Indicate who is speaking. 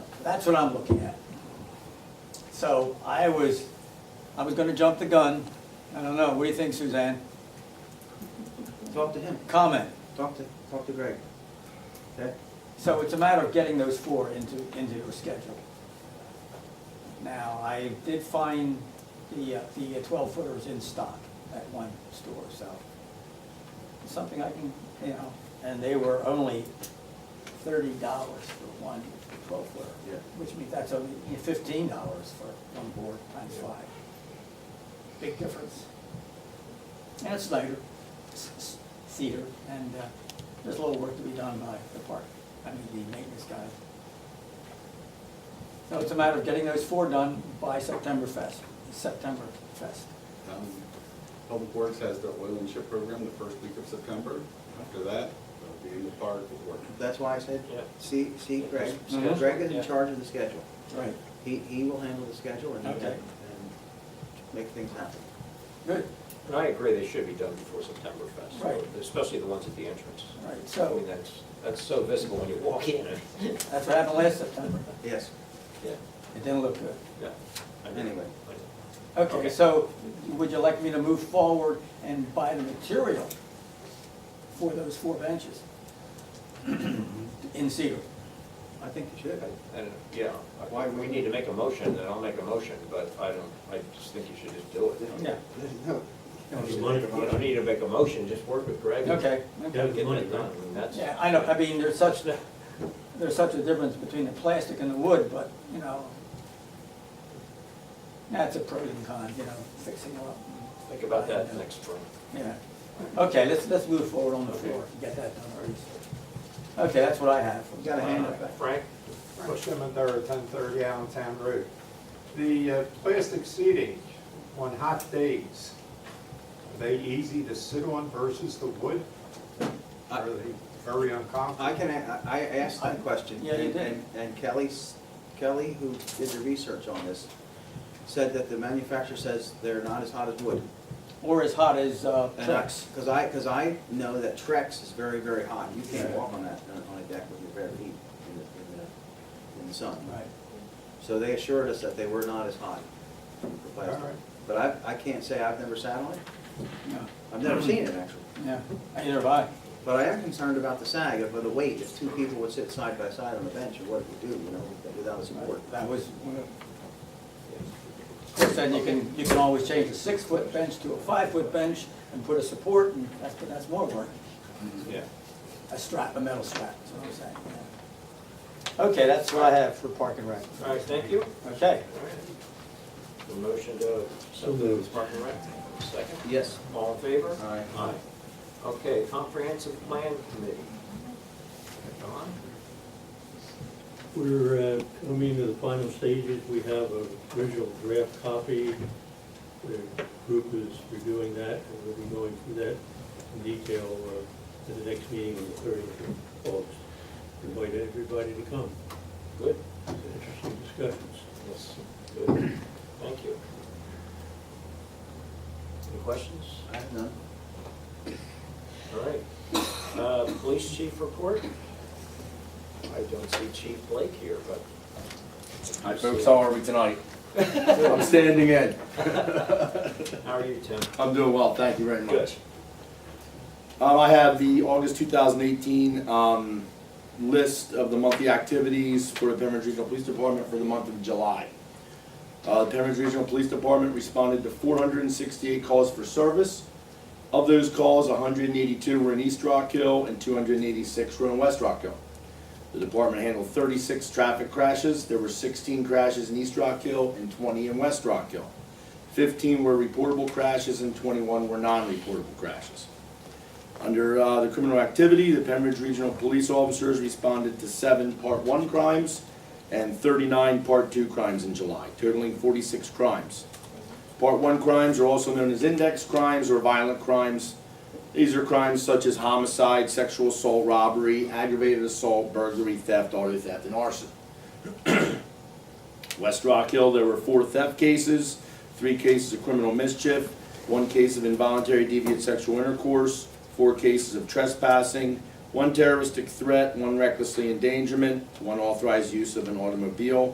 Speaker 1: That's what I'm looking at. So I was, I was gonna jump the gun. I don't know, what do you think, Suzanne?
Speaker 2: Talk to him,
Speaker 1: Comment.
Speaker 2: talk to, talk to Greg. Okay?
Speaker 1: So it's a matter of getting those four into, into your schedule. Now, I did find the, uh, the twelve footers in stock at one store, so it's something I can, you know, and they were only thirty dollars for one twelve footer.
Speaker 2: Yeah.
Speaker 1: Which means that's only fifteen dollars for one board times five. Big difference. And it's lighter, it's- it's cedar, and uh, there's a little work to be done by the park, I mean, the maintenance guys. So it's a matter of getting those four done by September fest, September fest.
Speaker 3: Um, Public Works has their oil and chip program the first week of September. After that, they'll be in the park with work.
Speaker 2: That's why I said,
Speaker 4: Yeah.
Speaker 2: see, see Greg.
Speaker 1: Mhm.
Speaker 2: Greg is in
Speaker 4: Yeah.
Speaker 2: charge of the schedule.
Speaker 1: Right.
Speaker 2: He, he will handle the schedule and,
Speaker 1: Okay.
Speaker 2: and make things happen.
Speaker 1: Good,
Speaker 4: And I agree, they should be done before September Fest.
Speaker 1: Right.
Speaker 4: Especially the ones at the entrance.
Speaker 1: right,
Speaker 4: I
Speaker 1: so
Speaker 4: mean, that's, that's so visible when you walk in.
Speaker 1: that's what happened last September,
Speaker 2: Yes,
Speaker 4: Yeah,
Speaker 1: it didn't look good.
Speaker 4: yeah. I agree.
Speaker 2: Anyway.
Speaker 1: Okay,
Speaker 4: Okay.
Speaker 1: so would you like me to move forward and buy the material for those four benches? In cedar?
Speaker 2: I think you should.
Speaker 4: And, yeah, why, we need to make a motion, and I'll make a motion, but I don't, I just think you should just do it.
Speaker 1: Yeah.
Speaker 2: No.
Speaker 4: You don't need to make a motion, just work with Greg. and
Speaker 1: Okay,
Speaker 4: Get
Speaker 1: okay.
Speaker 4: it done, and that's.
Speaker 1: Yeah, I know, I mean, there's such, there's such a difference between the plastic and the wood, but, you know, that's a pro and con, you know, fixing it up.
Speaker 4: Think about that next spring.
Speaker 1: Yeah, okay, let's, let's move forward on the floor, get that done already. Okay, that's what I have.
Speaker 2: You gotta hand it back.
Speaker 4: Frank?
Speaker 5: Bush Cemetery, ten thirty Allentown Road. The uh, plastic seating on hot days, are they easy to sit on versus the wood? Are they very uncomfortable?
Speaker 2: I can, a- I I asked that question.
Speaker 1: Yeah, you
Speaker 2: and-
Speaker 1: did.
Speaker 2: and- And Kelly, s- Kelly, who did the research on this, said that the manufacturer says they're not as hot as wood.
Speaker 1: Or as hot as uh,
Speaker 4: Uh-huh.
Speaker 1: Trex.
Speaker 2: Because I, because I know that Trex is very, very hot. You can't
Speaker 1: Yeah.
Speaker 2: walk on that, on a deck with your bare feet in the, in the, in the sun.
Speaker 1: Right.
Speaker 2: So they assured us that they were not as hot for
Speaker 5: All
Speaker 2: plastic.
Speaker 5: right.
Speaker 2: But I, I can't say I've never sat on it.
Speaker 1: No,
Speaker 2: I've never seen it, actually.
Speaker 1: Yeah, either have I.
Speaker 2: But I am concerned about the sag, about the weight. If two people would sit side by side on a bench, or what it would do, you know, without the support.
Speaker 1: That was, uh, one of- of course, then you can, you can always change a six-foot bench to a five-foot bench and put a support, and that's, but that's more work.
Speaker 4: Yeah.
Speaker 1: A strap, a metal strap, is what I'm saying. yeah. Okay, that's what I have for park and rec.
Speaker 4: All right, thank you.
Speaker 1: Okay.
Speaker 4: All right. The motion to accept the Park and Rec, second.
Speaker 2: Yes.
Speaker 4: All in favor?
Speaker 2: Aye.
Speaker 4: Aye. Okay, Comprehensive Plan Committee. Don?
Speaker 6: We're uh, coming to the final stages. We have a visual draft copy. The group is reviewing that, and we'll be going through that in detail uh, at the next meeting on the 30th of August. Invite everybody to come.
Speaker 4: Good?
Speaker 6: It's Interesting discussions.
Speaker 4: Yes. Good. Thank you. Any questions?
Speaker 2: I have none.
Speaker 4: All right. Uh, Police Chief report? I don't see Chief Blake here, but.
Speaker 7: Hi folks, how are we tonight? I'm standing in.
Speaker 4: How are you, Tim?
Speaker 7: I'm doing well, thank you very much. Um, I have the August 2018 um, list of the monthly activities for the Pembroke Regional Police Department for the month of July. Uh, The Pembroke Regional Police Department responded to 468 calls for service. Of those calls, 182 were in East Rock Hill and 286 were in West Rock Hill. The department handled 36 traffic crashes. There were 16 crashes in East Rock Hill and 20 in West Rock Hill. 15 were reportable crashes and 21 were non-reportable crashes. Under uh, the criminal activity, the Pembroke Regional Police Officers responded to seven Part 1 crimes and 39 Part 2 crimes in July, totaling 46 crimes. Part 1 crimes are also known as index crimes or violent crimes. These are crimes such as homicide, sexual assault, robbery, aggravated assault, burglary, theft, auto theft, and arson. West Rock Hill, there were four theft cases, three cases of criminal mischief, one case of involuntary deviant sexual intercourse, four cases of trespassing, one terroristic threat, one recklessly endangerment, one authorized use of an automobile,